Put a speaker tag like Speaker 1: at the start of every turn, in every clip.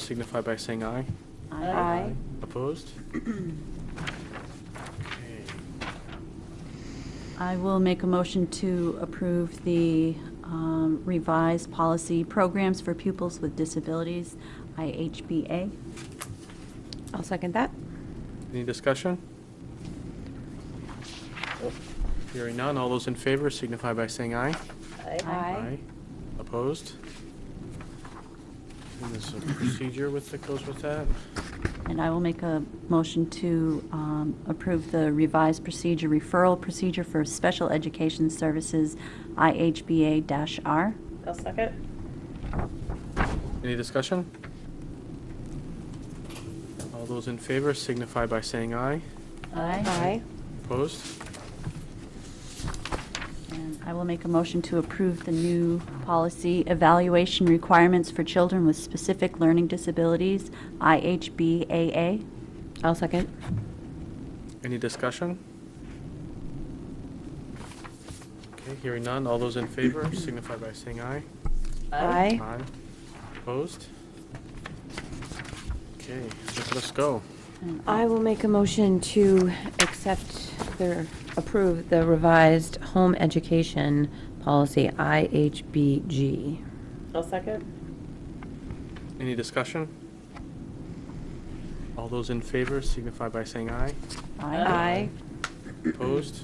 Speaker 1: signify by saying aye.
Speaker 2: Aye.
Speaker 1: Opposed? Okay.
Speaker 2: I will make a motion to approve the um, revised policy programs for pupils with disabilities, IHBA.
Speaker 3: I'll second that.
Speaker 1: Any discussion? Oh, Hearing none, all those in favor signify by saying aye.
Speaker 2: Aye.
Speaker 1: Opposed? And there's a procedure with, that goes with that.
Speaker 2: And I will make a motion to um, approve the revised procedure, referral procedure for special education services, IHBA-R.
Speaker 4: I'll second.
Speaker 1: Any discussion? All those in favor signify by saying aye.
Speaker 3: Aye.
Speaker 1: Opposed?
Speaker 2: And I will make a motion to approve the new policy, evaluation requirements for children with specific learning disabilities, IHBAA.
Speaker 3: I'll second.
Speaker 1: Any discussion? Okay, hearing none, all those in favor signify by saying aye.
Speaker 3: Aye.
Speaker 1: Aye. Opposed? Okay, just let us go.
Speaker 2: And
Speaker 3: I will make a motion to accept the, approve the revised home education policy, IHBG.
Speaker 4: I'll second.
Speaker 1: Any discussion? All those in favor signify by saying aye.
Speaker 2: Aye.
Speaker 1: Opposed?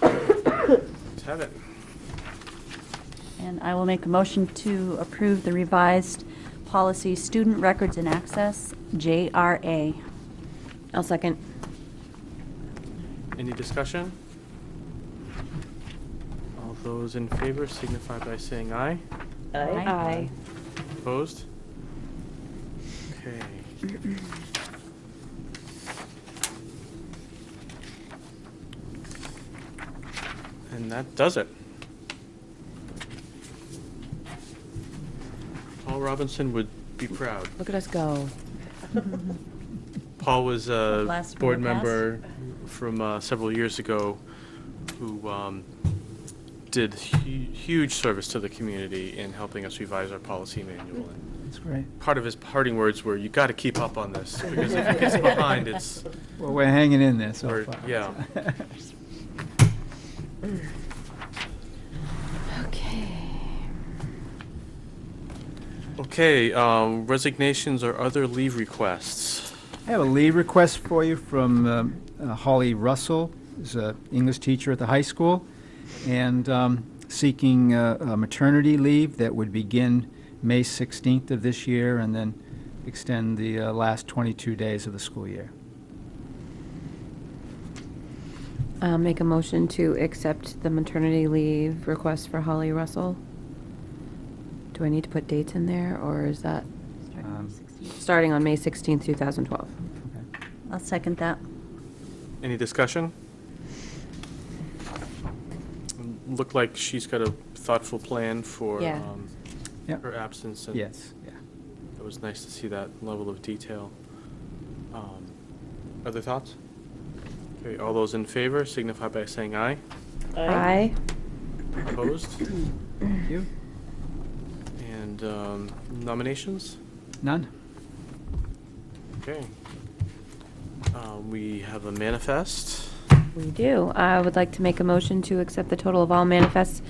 Speaker 1: Let's have it.
Speaker 2: And I will make a motion to approve the revised policy, student records and access, JRA.
Speaker 3: I'll second.
Speaker 1: Any discussion? All those in favor signify by saying aye.
Speaker 2: Aye.
Speaker 3: Aye.
Speaker 1: Opposed? Okay. And that does it. Paul Robinson would be proud.
Speaker 3: Look at us go.
Speaker 1: Paul was a
Speaker 2: Last
Speaker 1: board
Speaker 2: real pass.
Speaker 1: member from uh, several years ago who um, did hu- huge service to the community in helping us revise our policy manual. And
Speaker 5: That's great.
Speaker 1: Part of his parting words were, "You got to keep up on this because if it gets behind, it's."
Speaker 5: Well, we're hanging in there so
Speaker 1: Or-
Speaker 5: far.
Speaker 1: yeah.
Speaker 3: Okay.
Speaker 1: Okay, um, resignations or other leave requests.
Speaker 5: I have a leave request for you from um, uh, Holly Russell, who's an English teacher at the high school, and um, seeking uh, a maternity leave that would begin May 16th of this year and then extend the uh, last 22 days of the school year.
Speaker 3: Uh, Make a motion to accept the maternity leave request for Holly Russell. Do I need to put dates in there, or is that
Speaker 2: Starting on
Speaker 5: Um,
Speaker 2: 16.
Speaker 3: starting on May 16th, 2012?
Speaker 5: Okay.
Speaker 2: I'll second that.
Speaker 1: Any discussion? Looked like she's got a thoughtful plan for
Speaker 3: Yeah.
Speaker 1: um,
Speaker 5: Yep.
Speaker 1: her absence. and-
Speaker 5: Yes, yeah.
Speaker 1: It was nice to see that level of detail. Um, Other thoughts? Okay, all those in favor signify by saying aye. Opposed?
Speaker 5: Thank you.
Speaker 1: And um, nominations?
Speaker 5: None?
Speaker 1: Okay. Uh, We have a manifest.
Speaker 3: We do. I would like to make a motion to accept the total of all manifests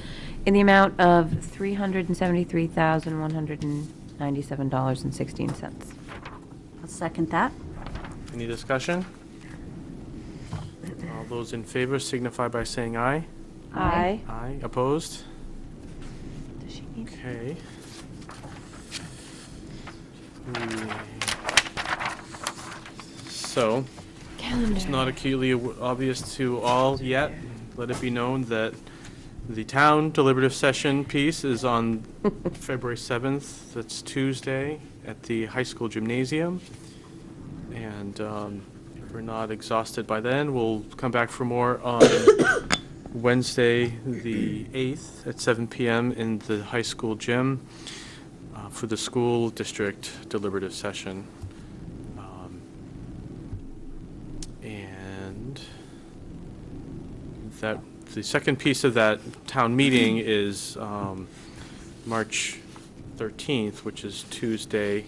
Speaker 3: in the amount of $373,197.16.
Speaker 2: I'll second that.
Speaker 1: Any discussion? All those in favor signify by saying aye.
Speaker 2: Aye.
Speaker 1: Aye. Opposed?
Speaker 2: Does she need?
Speaker 1: Okay. Hmm. So, It's not acutely aw- obvious to all yet. Let it be known that the town deliberative session piece is on February 7th. That's Tuesday at the high school gymnasium. And um, if we're not exhausted by then, we'll come back for more on Wednesday, the 8th, at 7 PM in the high school gym uh, for the school district deliberative session. Um, and that, the second piece of that town meeting is um, March 13th, which is Tuesday